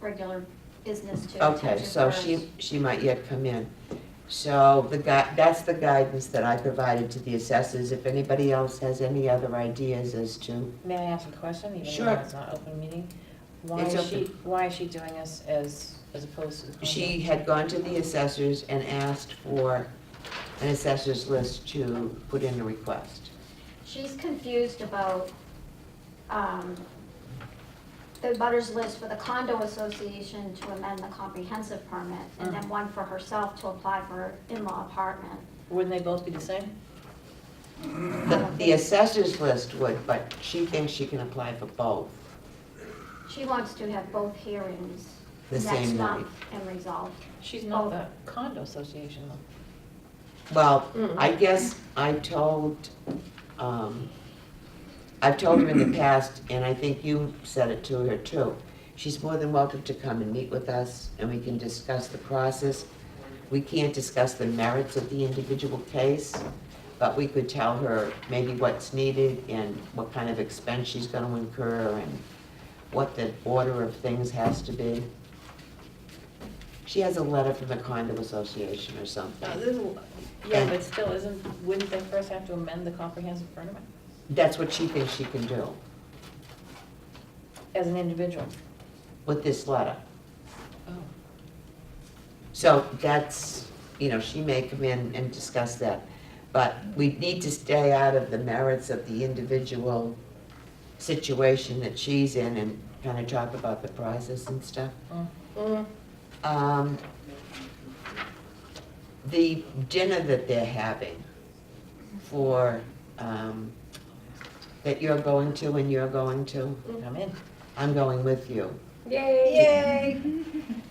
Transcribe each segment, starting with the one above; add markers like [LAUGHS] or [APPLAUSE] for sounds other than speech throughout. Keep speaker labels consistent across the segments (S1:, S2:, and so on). S1: regular business to
S2: Okay,
S1: attention
S2: so
S1: first.
S2: she, she might yet come in. So the guy, that's the guidance that I provided to the assessors. If anybody else has any other ideas as to,
S3: May I ask a question, even
S2: Sure.
S3: though it's not open meeting? Why
S2: It's
S3: is she,
S2: open.
S3: why is she doing this as, as opposed to the?
S2: she had gone to the assessors and asked for an assessors list to put in a request.
S1: She's confused about, um, the butters list for the condo association to amend the comprehensive permit, and
S2: Mm.
S1: then one for herself to apply for her in-law apartment.
S3: Wouldn't they both be the same?
S2: The,
S1: Uh-huh. Um,
S2: the assessors list would, but she thinks she can apply for both.
S1: She wants to have both hearings
S2: The
S1: next
S2: same
S1: month and resolve.
S3: She's not
S1: Oh.
S3: the condo association though.
S2: Well, I guess I told, um, I've told her in the past, and I think you said it to her too. She's more than welcome to come and meet with us, and we can discuss the process. We can't discuss the merits of the individual case, but we could tell her maybe what's needed and what kind of expense she's gonna incur and what the order of things has to be. She has a letter from the condo association or something.
S3: No, Oh, this is- Yeah, but still, isn't, wouldn't they first have to amend the comprehensive permit
S2: That's what she thinks she can do
S3: as an individual?
S2: with this letter.
S3: Oh.
S2: So that's, you know, she may come in and discuss that. But we need to stay out of the merits of the individual situation that she's in and kind of talk about the process and stuff.
S3: Mm.
S2: Um, The dinner that they're having for, um, that you're going to and you're going to,
S3: I'm in.
S2: I'm going with you.
S3: Yay!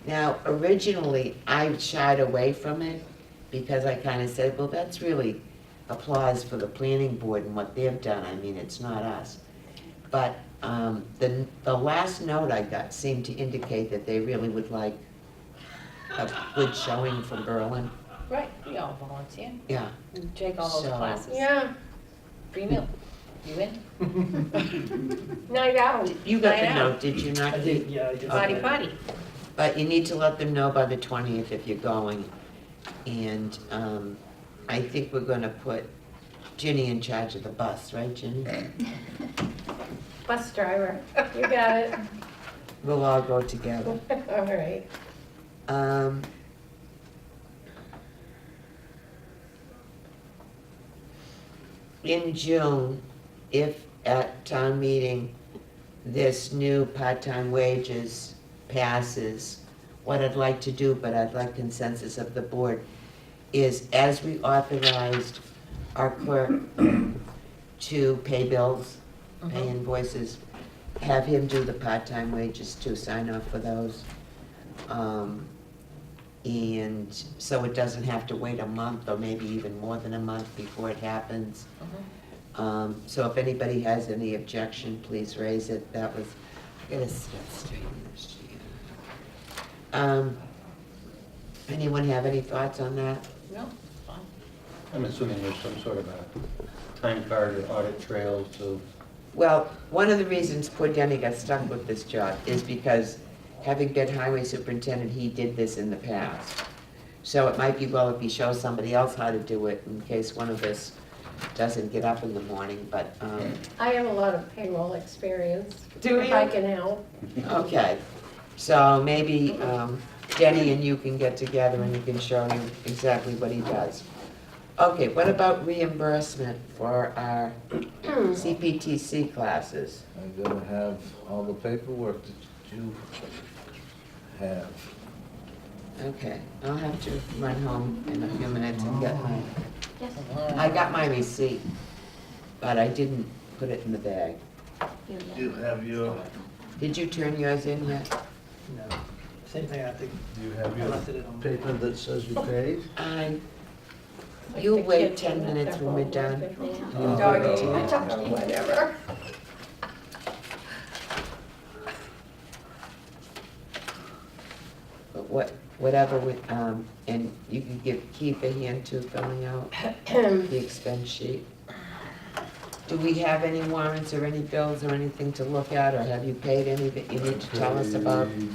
S2: Now, originally, I shied away from it because I kind of said, well, that's really applause for the planning board and what they've done. I mean, it's not us. But um, the, the last note I got seemed to indicate that they really would like a good showing from Berlin.
S3: Right, we all volunteer,
S2: Yeah.
S3: We take all those
S2: So-
S3: classes.
S4: Yeah,
S3: Free meal, you in?
S5: [LAUGHS]
S4: night out.
S2: You got
S3: I
S2: the
S3: know.
S2: note, did you not?
S5: I did, yeah, I did.
S3: Body
S2: Okay.
S3: potty.
S2: But you need to let them know by the twentieth if you're going. And, um, I think we're gonna put Ginny in charge of the bus, right, Ginny?
S4: Bus driver, you got it. [LAUGHS]
S2: We'll all go together.
S4: All right.
S2: Um, in June, if at town meeting, this new part-time wages passes, what I'd like to do, but I'd like consensus of the board, is as we authorized our clerk [COUGHS] to pay bills, pay
S3: Mhm.
S2: invoices, have him do the part-time wages too, sign off for those. Um, And so it doesn't have to wait a month or maybe even more than a month before it happens.
S3: Mhm.
S2: Um, So if anybody has any objection, please raise it. That was, I gotta st- straighten this shit. Um, Anyone have any thoughts on that?
S3: No, fine.
S6: I'm assuming there's some sort of a time card or audit trail to,
S2: Well, one of the reasons poor Denny got stuck with this job is because, having been highway superintendent, he did this in the past. So it might be well if he shows somebody else how to do it in case one of us doesn't get up in the morning, but, um,
S4: I have a lot of payroll experience.
S2: Do
S4: If I
S2: you?
S4: can help.
S2: okay. So maybe um, Denny and you can get together and you can show him exactly what he does. Okay, what about reimbursement for our CPTC classes?
S7: I'm gonna have all the paperwork that you have.
S2: Okay, I'll have to run home in a few minutes and get my,
S1: Yes,
S2: I got my receipt, but I didn't put it in the bag.
S1: you, yeah.
S7: You have your,
S2: Did you turn yours in yet?
S5: No, same thing, I think,
S7: you have
S5: I
S7: your
S5: left it at home.
S7: paper that says you paid?
S2: I,
S4: Like
S2: You
S4: the
S2: wait
S4: kids
S2: 10
S4: and the
S2: minutes when we're done.
S4: pepper.
S2: Oh,
S4: Doggy,
S7: no.
S4: touchy, whatever.
S2: but what, whatever, we um, and you can give, keep a hand to filling out the expense sheet. Do we have any warrants or any bills or anything to look at, or have you paid any that you need to tell us about?
S7: Paid